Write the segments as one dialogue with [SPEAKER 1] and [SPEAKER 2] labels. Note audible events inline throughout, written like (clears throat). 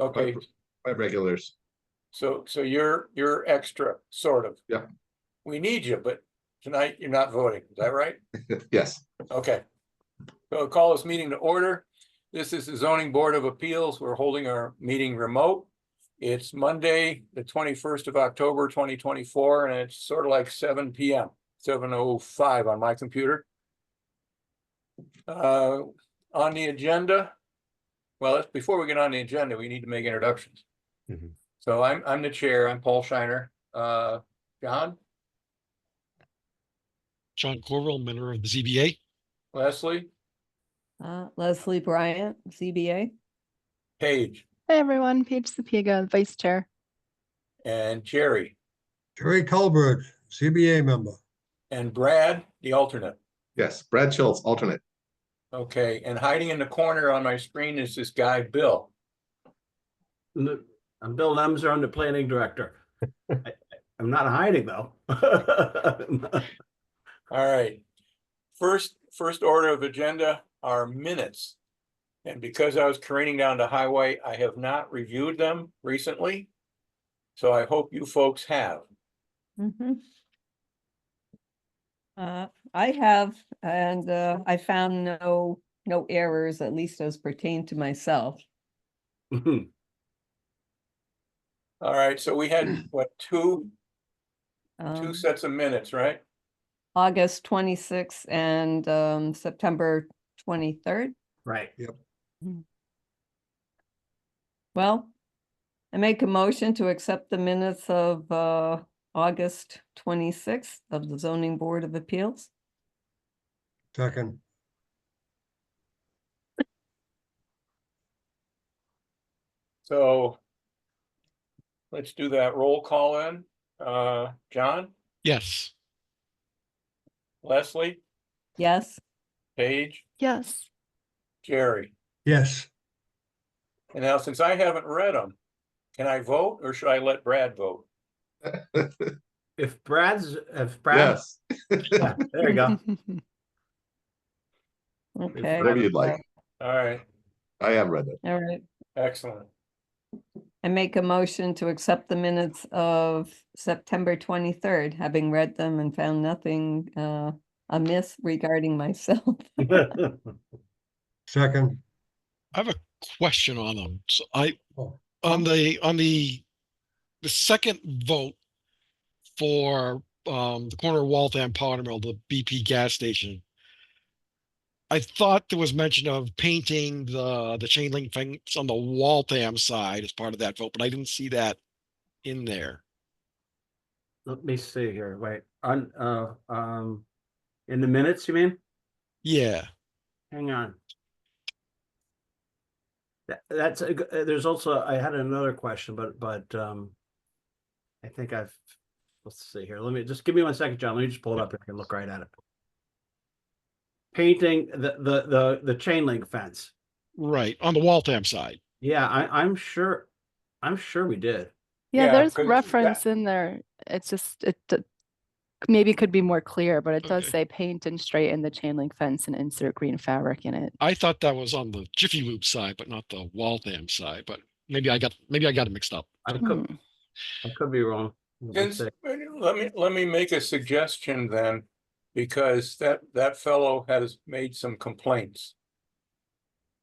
[SPEAKER 1] Okay,
[SPEAKER 2] Quite- quite regulars.
[SPEAKER 1] so, so you're, you're extra, sort of.
[SPEAKER 2] Yeah.
[SPEAKER 1] We need you, but tonight you're not voting, is that right?
[SPEAKER 2] Yes,
[SPEAKER 1] Okay. So I'll call this meeting to order. This is the zoning board of appeals. We're holding our meeting remote. It's Monday, the twenty-first of October, twenty twenty-four, and it's sort of like seven P M, seven oh five on my computer. Uh, on the agenda, well, it's- before we get on the agenda, we need to make introductions.
[SPEAKER 3] Mhm.
[SPEAKER 1] So I'm, I'm the chair. I'm Paul Shiner. Uh, John,
[SPEAKER 3] John Corral, member of the ZBA.
[SPEAKER 1] Leslie,
[SPEAKER 4] Uh, Leslie Bryant, ZBA.
[SPEAKER 1] Paige,
[SPEAKER 5] Hi, everyone. Paige Sapiega, Vice Chair.
[SPEAKER 1] and Jerry.
[SPEAKER 6] Jerry Colbert, CBA member.
[SPEAKER 1] And Brad, the alternate.
[SPEAKER 2] yes. Brad Schultz, alternate.
[SPEAKER 1] Okay, and hiding in the corner on my screen is this guy, Bill.
[SPEAKER 7] N- I'm Bill Lemser, I'm the planning director. I- I- I'm not hiding though. (laughs)
[SPEAKER 1] All right. First, first order of agenda are minutes. And because I was careening down the highway, I have not reviewed them recently. So I hope you folks have.
[SPEAKER 4] Mhm. Uh, I have, and, uh, I found no, no errors, at least as pertain to myself.
[SPEAKER 1] All right, so we
[SPEAKER 6] (clears throat)
[SPEAKER 1] had, what, two, two
[SPEAKER 4] Um,
[SPEAKER 1] sets of minutes, right?
[SPEAKER 4] August twenty-sixth and, um, September twenty-third.
[SPEAKER 7] Right,
[SPEAKER 4] Well, I make a motion to accept the minutes of, uh, August twenty-sixth of the zoning board of appeals.
[SPEAKER 6] Second,
[SPEAKER 1] So let's do that roll call in. Uh, John,
[SPEAKER 3] Yes,
[SPEAKER 1] Leslie,
[SPEAKER 4] Yes,
[SPEAKER 1] Paige,
[SPEAKER 5] Yes.
[SPEAKER 1] Jerry.
[SPEAKER 6] yes,
[SPEAKER 1] And now, since I haven't read them, can I vote or should I let Brad vote?
[SPEAKER 7] if Brad's, if Brad,
[SPEAKER 2] Yes,
[SPEAKER 7] (laughs) yeah, there
[SPEAKER 5] (laughs)
[SPEAKER 7] you go.
[SPEAKER 4] okay,
[SPEAKER 2] whatever you'd like.
[SPEAKER 1] All right,
[SPEAKER 2] I have read it.
[SPEAKER 4] all right.
[SPEAKER 1] excellent.
[SPEAKER 4] I make a motion to accept the minutes of September twenty-third, having read them and found nothing uh amiss regarding myself.
[SPEAKER 6] second,
[SPEAKER 3] I have a question on them. So I,
[SPEAKER 6] Oh.
[SPEAKER 3] on the, on the, the second vote for um, the corner of Waltham Pottermill, the BP gas station. I thought there was mention of painting the, the chain link fence on the Waltham side as part of that vote, but I didn't see that in there.
[SPEAKER 7] (laughs) Let me see here, wait, on, uh, um, in the minutes, you mean?
[SPEAKER 3] Yeah,
[SPEAKER 7] Hang on. That, that's, a g- uh, there's also, I had another question, but, but, um, I think I've, let's see here, let me, just give me one second, John, let me just pull it up and I can look right at it. Painting the, the, the, the chain link fence.
[SPEAKER 3] right, on the Waltham side.
[SPEAKER 7] Yeah, I, I'm sure, I'm sure we did.
[SPEAKER 1] Yeah,
[SPEAKER 5] Yeah, there's
[SPEAKER 1] 'cause it's-
[SPEAKER 5] reference in there. It's just, it d- maybe could be more clear, but it does
[SPEAKER 3] Okay.
[SPEAKER 5] say paint and straighten the chain link fence and insert green fabric in it.
[SPEAKER 3] I thought that was on the Jiffy Lube side, but not the Waltham side, but maybe I got, maybe I got it mixed up.
[SPEAKER 7] I could,
[SPEAKER 5] Hmm.
[SPEAKER 7] I could be wrong. Let's
[SPEAKER 1] Since-
[SPEAKER 7] see.
[SPEAKER 1] Let me, let me make a suggestion then, because that, that fellow has made some complaints.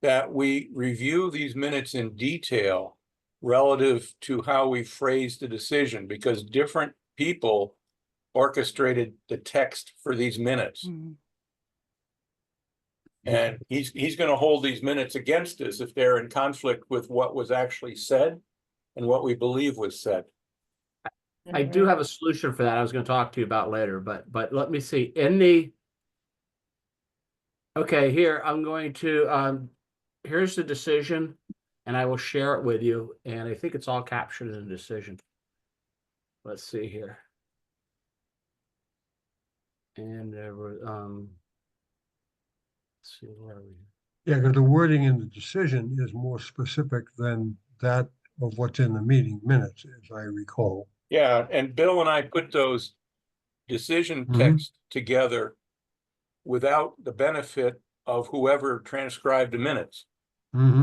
[SPEAKER 1] That we review these minutes in detail relative to how we phrased the decision, because different people orchestrated the text for these minutes.
[SPEAKER 5] Hmm.
[SPEAKER 1] And he's, he's gonna hold these minutes against us if they're in conflict with what was actually said and what we believe was said.
[SPEAKER 7] I
[SPEAKER 4] Mm-hmm.
[SPEAKER 7] do have a solution for that. I was gonna talk to you about later, but, but let me see, in the. Okay, here, I'm going to, um, here's the decision, and I will share it with you, and I think it's all captured in the decision. Let's see here. And there were, um. let's See where are we?
[SPEAKER 6] yeah, because the wording in the decision is more specific than that of what's in the meeting minutes, as I recall.
[SPEAKER 1] Yeah, and Bill and I put those decision
[SPEAKER 6] Mhm.
[SPEAKER 1] texts together without the benefit of whoever transcribed the minutes.
[SPEAKER 6] Mm-hmm.